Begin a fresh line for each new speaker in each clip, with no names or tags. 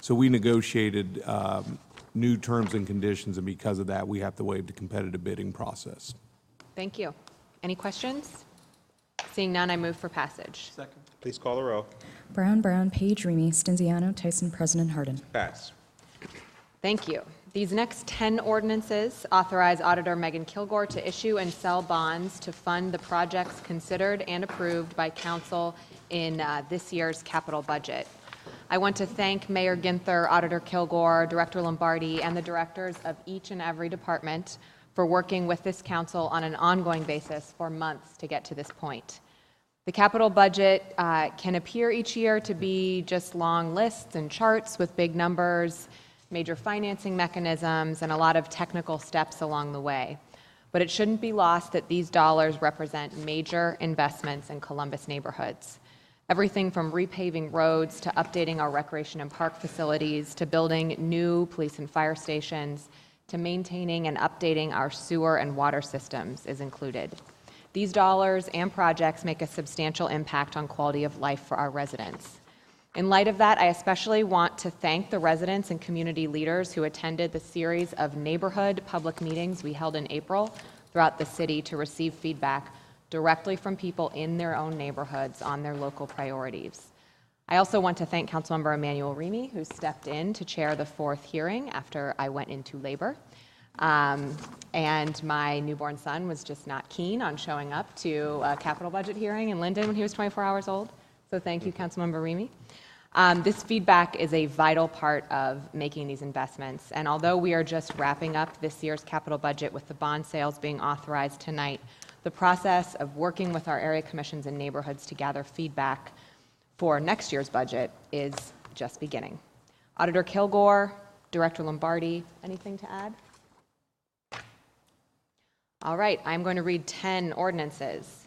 So we negotiated um, new terms and conditions, and because of that, we have to waive the competitive bidding process.
Thank you. Any questions? Seeing none, I move for passage.
Second. Please call the row.
Brown, Brown, Page, Remy, Stenziano, Tyson, President Harden.
Pass.
Thank you. These next 10 ordinances authorize Auditor Megan Kilgore to issue and sell bonds to fund the projects considered and approved by council in uh, this year's capital budget. I want to thank Mayor Ginther, Auditor Kilgore, Director Lombardi, and the directors of each and every department for working with this council on an ongoing basis for months to get to this point. The capital budget uh, can appear each year to be just long lists and charts with big numbers, major financing mechanisms, and a lot of technical steps along the way. But it shouldn't be lost that these dollars represent major investments in Columbus neighborhoods. Everything from repaving roads to updating our recreation and park facilities to building new police and fire stations to maintaining and updating our sewer and water systems is included. These dollars and projects make a substantial impact on quality of life for our residents. In light of that, I especially want to thank the residents and community leaders who attended the series of neighborhood public meetings we held in April throughout the city to receive feedback directly from people in their own neighborhoods on their local priorities. I also want to thank Councilmember Emmanuel Remy, who stepped in to chair the fourth hearing after I went into labor. Um, And my newborn son was just not keen on showing up to a capital budget hearing in Linden when he was 24 hours old. So thank you, Councilmember Remy. Um, This feedback is a vital part of making these investments. And although we are just wrapping up this year's capital budget with the bond sales being authorized tonight, the process of working with our area commissions and neighborhoods to gather feedback for next year's budget is just beginning. Auditor Kilgore, Director Lombardi, anything to add? All right, I'm going to read 10 ordinances.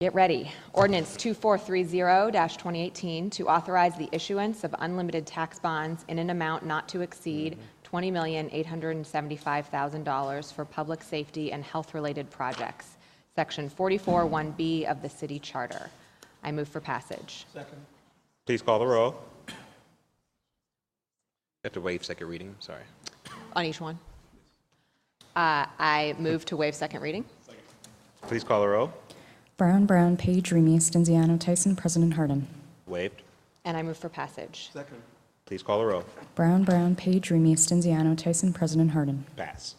Get ready. Ordinance 2430-2018 to authorize the issuance of unlimited tax bonds in an amount not to exceed $20,875,000 for public safety and health-related projects, Section 441B of the city charter. I move for passage.
Please call the row.
Have to waive second reading, sorry.
On each one. Uh, I move to waive second reading.
Please call the row.
Brown, Brown, Page, Remy, Stenziano, Tyson, President Harden.
Waived.
And I move for passage.
Please call the row.
Brown, Brown, Page, Remy, Stenziano, Tyson, President Harden.
Passed.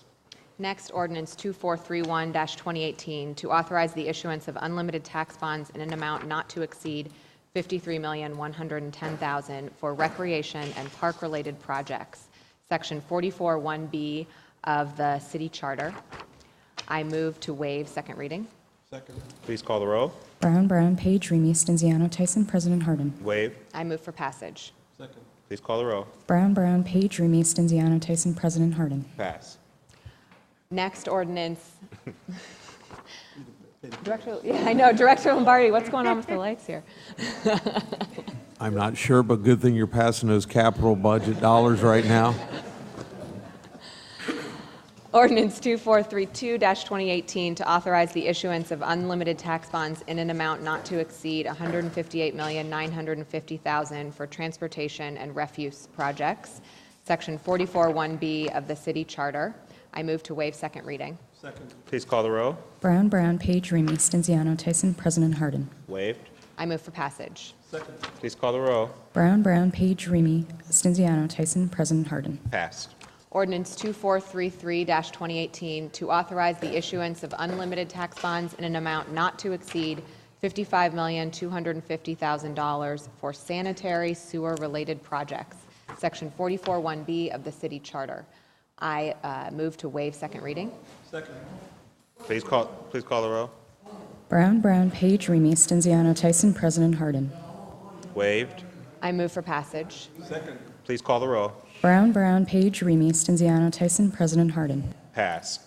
Next, ordinance 2431-2018, to authorize the issuance of unlimited tax bonds in an amount not to exceed $53,110,000 for recreation and park-related projects, Section 441B of the city charter. I move to waive second reading.
Please call the row.
Brown, Brown, Page, Remy, Stenziano, Tyson, President Harden.
Waived.
I move for passage.
Please call the row.
Brown, Brown, Page, Remy, Stenziano, Tyson, President Harden.
Pass.
Next ordinance. Director, yeah, I know, Director Lombardi, what's going on with the lights here?
I'm not sure, but good thing you're passing those capital budget dollars right now.
Ordinance 2432-2018 to authorize the issuance of unlimited tax bonds in an amount not to exceed $158,950,000 for transportation and refuse projects, Section 441B of the city charter. I move to waive second reading.
Please call the row.
Brown, Brown, Page, Remy, Stenziano, Tyson, President Harden.
Waived.
I move for passage.
Please call the row.
Brown, Brown, Page, Remy, Stenziano, Tyson, President Harden.
Passed.
Ordinance 2433-2018 to authorize the issuance of unlimited tax bonds in an amount not to exceed $55,250,000 for sanitary sewer-related projects, Section 441B of the city charter. I uh, move to waive second reading.
Please call, please call the row.
Brown, Brown, Page, Remy, Stenziano, Tyson, President Harden.
Waived.
I move for passage.
Please call the row.
Brown, Brown, Page, Remy, Stenziano, Tyson, President Harden.
Pass.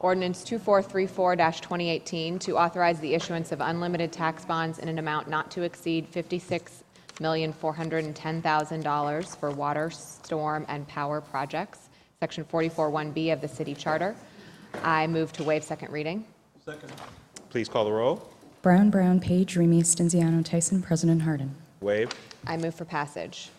Ordinance 2434-2018 to authorize the issuance of unlimited tax bonds in an amount not to exceed $56,410,000 for water, storm, and power projects, Section 441B of the city charter. I move to waive second reading.
Please call the row.
Brown, Brown, Page, Remy, Stenziano, Tyson, President Harden.
Waived.
I move for passage.